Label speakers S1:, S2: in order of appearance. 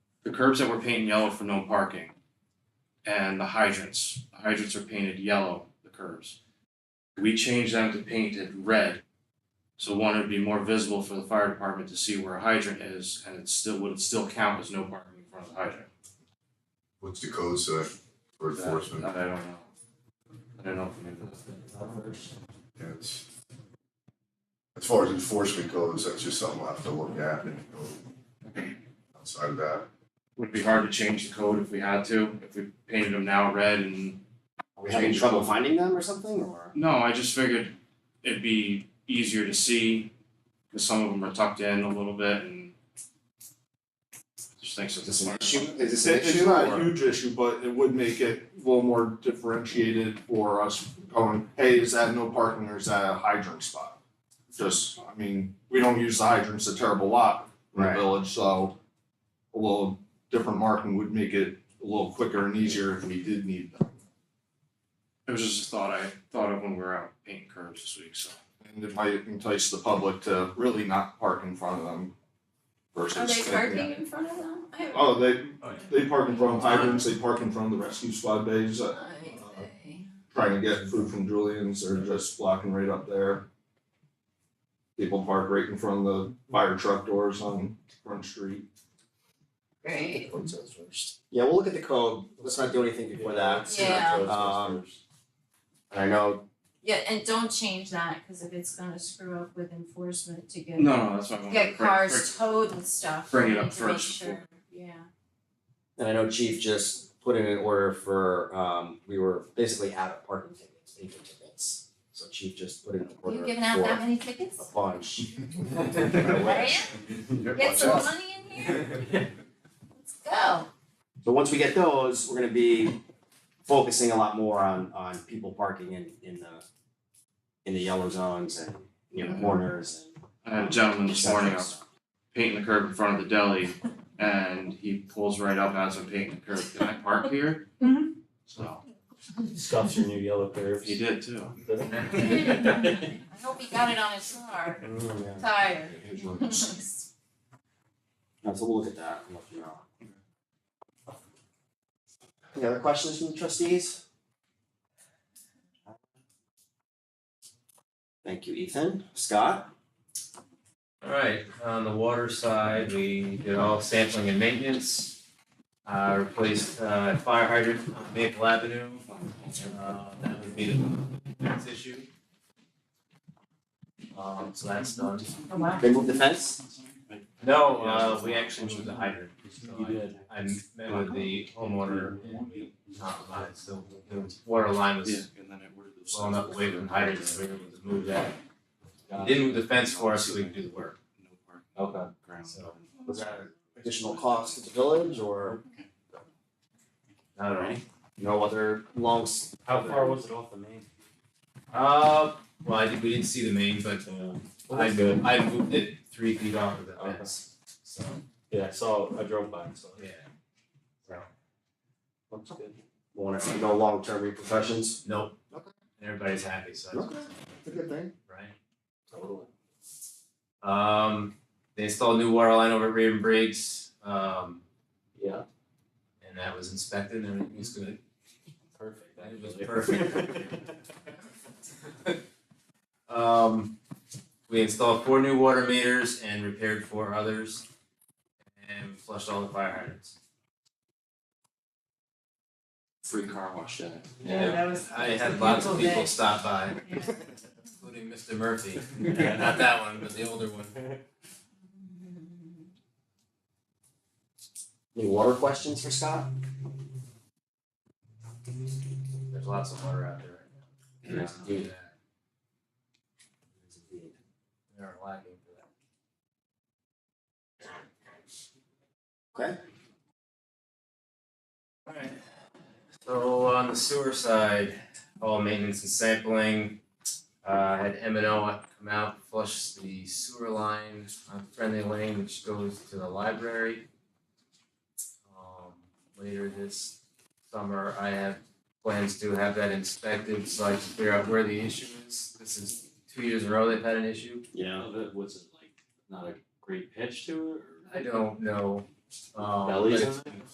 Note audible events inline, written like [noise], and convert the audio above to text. S1: the curbs that were painted yellow for no parking. And the hydrants, the hydrants are painted yellow, the curbs. We changed them to painted red. So one, it'd be more visible for the fire department to see where a hydrant is and it still would still count as no parking in front of the hydrant.
S2: What's the code say for
S1: That-
S2: enforcement?
S1: That I don't know. I don't know if we knew that.
S2: Yeah, it's- As far as enforcement goes, that's just something we'll have to look at and go outside of
S3: [laughs]
S2: that.
S1: Would be hard to change the code if we had to, if we painted them now red and
S4: Are we having trouble finding them or something, or?
S1: No, I just figured it'd be easier to see, cause some of them are tucked in a little bit and. Just think so.
S4: Is this an issue? Is this an
S5: It- It's
S4: issue?
S5: not
S4: or-
S5: a huge issue, but it would make it a little more differentiated for us going, hey, is that no parking or is that a hydrant spot? Just, I mean, we don't use the hydrants a terrible lot in the
S4: Right.
S5: village, so a little different marking would make it a little quicker and easier if we did need them.
S1: It was just a thought I thought of when we were out painting curves this week, so.
S5: And it might entice the public to really not park in front of them versus.
S3: Are they
S5: thinking-
S3: parking in front of them? I haven't-
S5: Oh, they, they park in front of hydrants, they park in front of the rescue squad bays, uh,
S3: I see.
S5: trying to get food from Julian's, they're just blocking right up there. People park right in front of the fire truck doors on Front Street.
S3: Great.
S2: Code says first.
S4: Yeah, we'll look at the code, let's not do anything before that.
S3: Yeah.
S4: Um, and I know,
S3: Yeah, and don't change that, cause if it's gonna screw up with enforcement to get
S1: No, no, that's why I wanted to
S3: get
S1: bring-
S3: cars towed and stuff,
S1: bring it
S3: we
S1: up
S3: need to make
S1: first
S3: sure, yeah.
S4: and I know Chief just put in an order for, um, we were basically out of parking tickets, agent tickets. So Chief just put in an order
S3: You've
S4: for
S3: given out that
S4: a
S3: many tickets?
S4: bunch.
S2: [laughs] Yep,
S3: Get
S2: watch
S3: some
S2: out.
S3: money in here,
S2: [laughs]
S3: let's go.
S1: [laughs]
S4: So once we get those, we're gonna be focusing a lot more on on people parking in in the in the yellow zones and you
S3: Mm-hmm.
S4: know corners and.
S1: I had a gentleman this morning, I was painting the curb in front of the deli and he pulls right up as I'm painting the curb, can I park here?
S3: Mhm.
S1: So,
S6: Scuffs your new yellow curves. [laughs]
S1: he did too.
S3: I hope he got it on his car,
S4: Mm, yeah.
S3: tire.
S1: [laughs]
S3: [laughs]
S4: No, so we'll look at that and let you know. Any other questions from the trustees? Thank you, Ethan. Scott?
S7: [laughs] Alright, on the water side, we did all sampling and maintenance. Uh, replaced, uh, fire hydrant on Maple Avenue, uh, that would be the next issue. Um, so that's done.
S3: Oh wow.
S4: They moved the fence?
S7: No, uh, we actually moved the hydrant, so
S6: You
S7: I,
S6: did.
S7: I met with the homeowner and we compromised, so the water line was
S1: And then it worded those-
S7: well enough away from the hydrant, so we were able to move that. Didn't move the fence for us, so we could do the work.
S1: No parking
S4: Okay.
S1: ground.
S7: So-
S4: Was that an additional cost to the village or
S7: Not at all.
S4: no other long s-
S6: How far was it off the main?
S7: Uh, well, I think we didn't see the main, but uh, I moved, I moved it three feet off of the
S6: Okay.
S7: fence, so,
S6: Yeah, I saw, I drove by and saw it.
S7: yeah.
S4: Looks good. Want to no long-term repercussions?
S7: Nope.
S4: Okay.
S7: And Everybody's happy, so that's
S4: Okay, it's a good thing.
S7: right.
S4: Totally.
S7: Um, they installed new water line over at Raven Briggs, um,
S6: Yeah.
S7: and that was inspected and everything was good.
S6: Perfect.
S7: That was perfect. [laughs] Um, we installed four new water meters and repaired four others, and flushed all the fire hydrants.
S1: Free car wash day.
S3: Yeah, that was.
S7: I had lots of people stop by,
S3: Yeah.
S7: including Mr. Murphy. Not that one, but the older one.
S4: Any water questions for Scott?
S7: There's lots of water out there right now.
S4: Yes, indeed.
S7: They're lacking for that.
S4: Okay.
S7: Alright. So on the sewer side, all maintenance and sampling, uh had M and O come out, flush the sewer line on Friendly Lane, which goes to the library. Um later this summer, I have plans to have that inspected, so I can figure out where the issue is. This is two years in a row they've had an issue.
S6: Yeah, that was it like not a great pitch to it or?
S7: I don't know, Um,
S6: Bellies
S7: but
S6: on it?